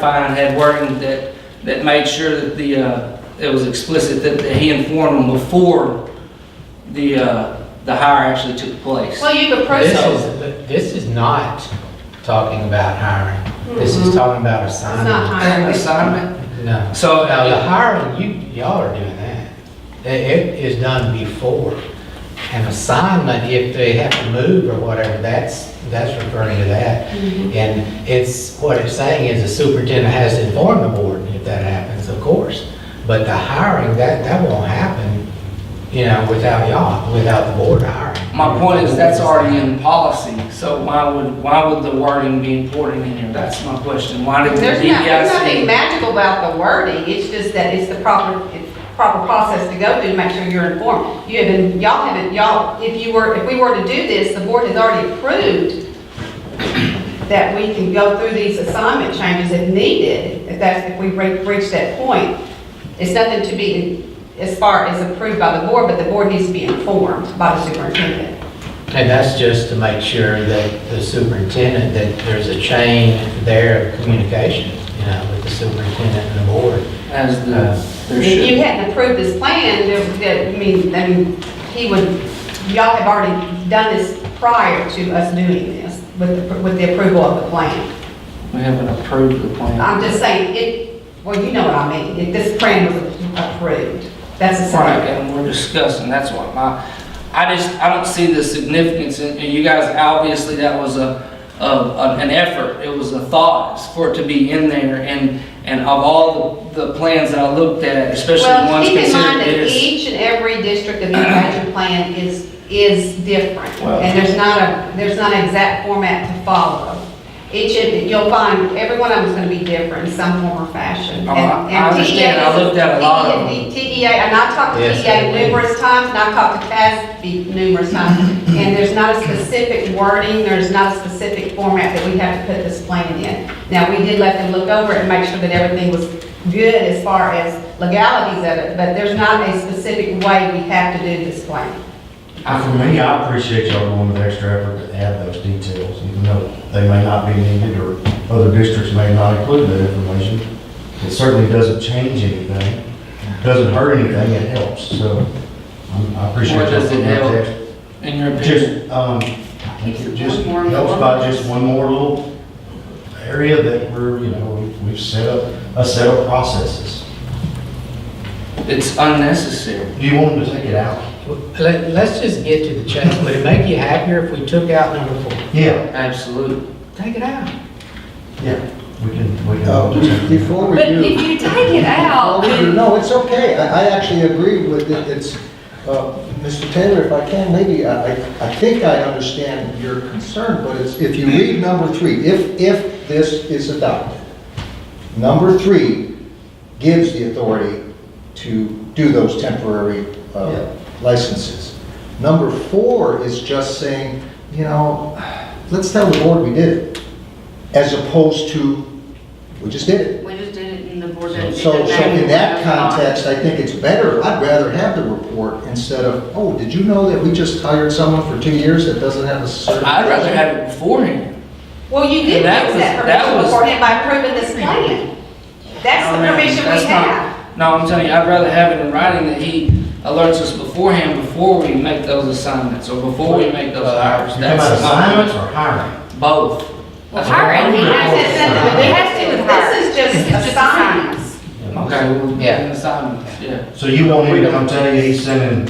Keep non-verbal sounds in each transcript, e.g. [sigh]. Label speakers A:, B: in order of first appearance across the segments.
A: Fine had wording that, that made sure that the, uh, it was explicit that that he informed them before the, uh, the hire actually took place.
B: Well, you could
C: This
B: process,
C: is, this is not talking about hiring. This is talking
B: Mm-hmm.
C: about
B: it's not
C: assignment.
A: An
B: hiring.
A: assignment?
C: No.
A: So,
C: Now, the
A: uh,
C: hiring, you, y'all are doing that. It- It is done before. An assignment, if they have to move or whatever, that's, that's referring to that.
B: Mm-hmm.
C: And it's, what it's saying is the superintendent has to inform the board if that happens, of course. But the hiring, that, that won't happen, you know, without y'all, without the board hiring.
A: my point is, that's already in policy, so why would, why would the wording be important in here? That's my question. Why did the E
B: There's not, there's nothing
A: DEIC?
B: magical about the wording, it's just that it's the proper, it's the proper process to go through to make sure you're informed. You have been, y'all haven't, y'all, if you were, if we were to do this, the board has already approved that we can go through these assignment changes if needed, if that's, if we re- reach that point. It's nothing to be, as far as approved by the board, but the board needs to be informed by the superintendent.
C: And that's just to make sure that the superintendent, that there's a chain there of communication, you know, with the superintendent and the board.
A: As the, there
B: If you
A: should.
B: hadn't approved this plan, there- there- I mean, I mean, he would, y'all have already done this prior to us doing this with, the- with the approval of the plan.
A: We haven't approved the plan.
B: I'm just saying, it, well, you know what I mean, if this plan was approved, that's the
A: Right,
B: same.
A: and we're discussing, that's what my, I just, I don't see the significance, in and you guys, obviously, that was a, of, an effort, it was a thought for it to be in there, and, and of all the the plans that I looked at, especially the
B: Well,
A: ones
B: keep in mind
A: considered
B: that
A: this.
B: each and every district of the budget plan is, is different.
A: Well-
B: And there's not a, there's not an exact format to follow. Each, of- you'll find, every one of them's gonna be different in some form or fashion.
A: Oh, I-
B: And- and
A: I understand. I
B: TEA
A: looked at a lot of
B: TEA TEA, E and I talked to
C: Yes,
B: TEA
C: I did.
B: numerous times, and I talked to CASB numerous times. And there's not a specific wording, there's not a specific format that we have to put this plan in. Now, we did let them look over it and make sure that everything was good as far as legalities of it, but there's not a specific way we have to do this plan.
D: Uh, For me, I appreciate y'all going with extra effort to add those details, even though they may not be needed or other districts may not include that information. It certainly doesn't change anything, doesn't hurt anything, it helps, so um, I appreciate.
A: What does
D: y'all
A: it
D: going
A: help?
D: with the extra-
A: In your opinion,
D: just, um, I think it just helps by just one more little area that we're, you know, we- we've set up, a set of processes.
A: it's unnecessary.
D: Do you want them to take it out?
C: Let, let's just get to the chain. Would it make you happier if we took out number four?
D: Yeah,
A: Absolutely.
C: Take it out.
D: yeah, we can, we
E: Uh,
D: can.
E: Before we
F: But
E: do.
F: if you take it out, then
E: No, it's okay. I, I actually agree with it. It's, uh, Mr. Taylor, if I can, maybe, I, I- I think I understand your concern, but it's, if you read number three, if, if this is adopted, number three gives the authority to do those temporary uh, licenses. Number four is just saying, you know, let's tell the board we did it, as opposed to, we just did it.
F: we just did it in the board.
E: So, so in that context, I think it's better, I'd rather have the report instead of, oh, did you know that we just hired someone for two years that doesn't have a certification?
A: I'd rather have it beforehand.
B: Well, you did
A: That
B: fix
A: was-
B: that
A: that
B: permission
A: was-
B: beforehand by approving this plan. That's the
A: No, ma'am,
B: permission we
A: that's not-
B: have.
A: No, I'm telling you, I'd rather have it in writing that he alerts us beforehand, before we make those assignments, or before we make those hires.
D: How
A: That's
D: about Uh, assignments
A: my,
D: or hiring?
A: both.
F: Well, hiring, he has
B: This
F: it,
B: is nothing-
F: he has to,
B: This is just
F: It's just
B: assignments.
F: assignments.
A: Okay, well,
C: Yeah.
A: then assignments, yeah.
D: So you want me to come tell you he's sending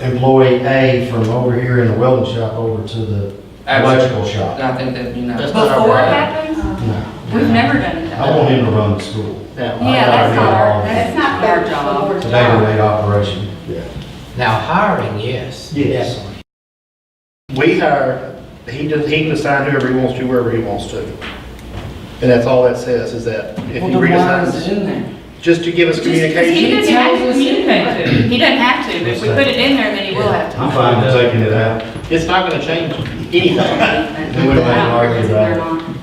D: employee A from over here in the welding shop over to the electrical shop?
A: I think that'd be nice.
F: Before it happens,
D: No.
F: we've never done it
D: I
F: that way.
D: want him to run the school.
F: Yeah, that's not our, that's not our job.
D: It's a day-to-day operation.
C: Now, hiring, yes.
G: Yes.
C: definitely.
G: We hire, he does, he can assign whoever he wants to, wherever he wants to. And that's all that says, is that if
A: Well,
G: he
A: then why is it
G: redesigns,
A: in there?
G: just to give us
F: Just 'cause he
G: communication.
F: doesn't have to communicate to. He doesn't have to, but if we put it in there, then he will
E: [laughs]
F: have to.
D: I'm fine with taking it out.
G: It's not gonna change anything.
D: We wouldn't have argued about it.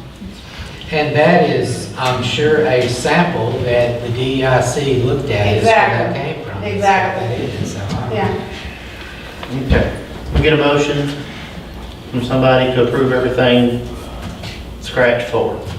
C: And that is, I'm sure, a sample that the DEIC looked at. is where that
B: Exactly.
C: came from.
B: Exactly.
C: That is, so I-
B: Yeah.
G: Okay. We get a motion from somebody to approve everything scratch forward.